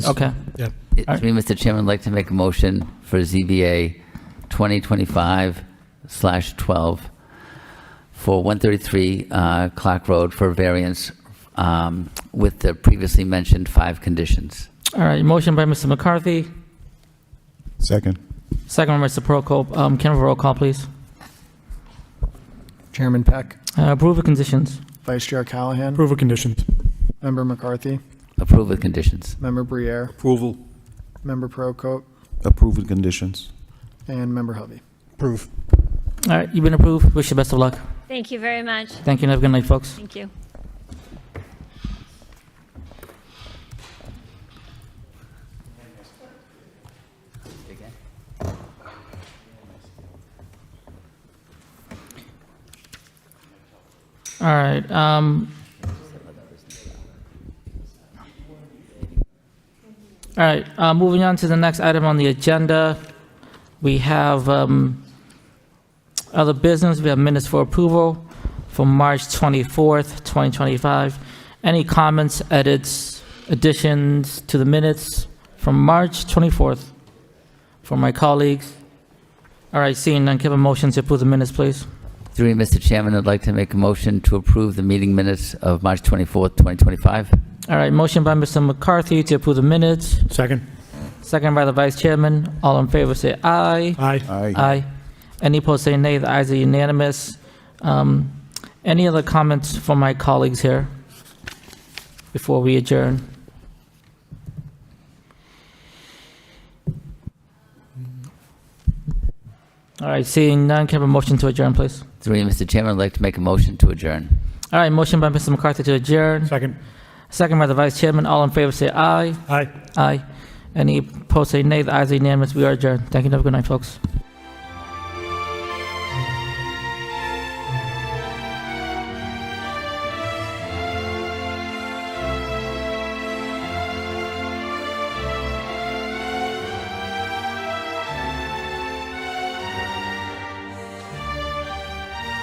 Okay. Yeah. It's me, Mr. Chairman, I'd like to make a motion for ZBA 2025 slash 12 for 133 uh, Clark Road for variance um, with the previously mentioned five conditions. All right, motion by Mr. McCarthy, Second. second by Mr. Prokop. Um, Can I have a roll call, please? Chairman Peck, Uh, Approve the conditions. Vice Chair Callahan, Approval conditions. Member McCarthy, Approve with conditions. Member Briere, Approval. Member Prokop, Approve with conditions. and Member Hovey. Approve. All right, you've been approved. Wish you best of luck. Thank you very much. Thank you, and have a good night, folks. Thank you. All right, um. All right, uh, moving on to the next item on the agenda. We have, um, other business, we have minutes for approval for March 24th, 2025. Any comments, edits, additions to the minutes from March 24th from my colleagues? All right, seeing none, give a motion to approve the minutes, please. Through you, Mr. Chairman, I'd like to make a motion to approve the meeting minutes of March 24th, 2025. All right, motion by Mr. McCarthy to approve the minutes, Second. second by the vice chairman. All in favor, say aye. Aye. Aye. Aye. Any opposed, say nay. The ayes are unanimous. Um, Any other comments from my colleagues here before we adjourn? All right, seeing none, can I have a motion to adjourn, please? Through you, Mr. Chairman, I'd like to make a motion to adjourn. All right, motion by Mr. McCarthy to adjourn, Second. second by the vice chairman. All in favor, say aye. Aye. Aye. Any opposed, say nay. The ayes are unanimous. We are adjourned. Thank you. Have a good night, folks.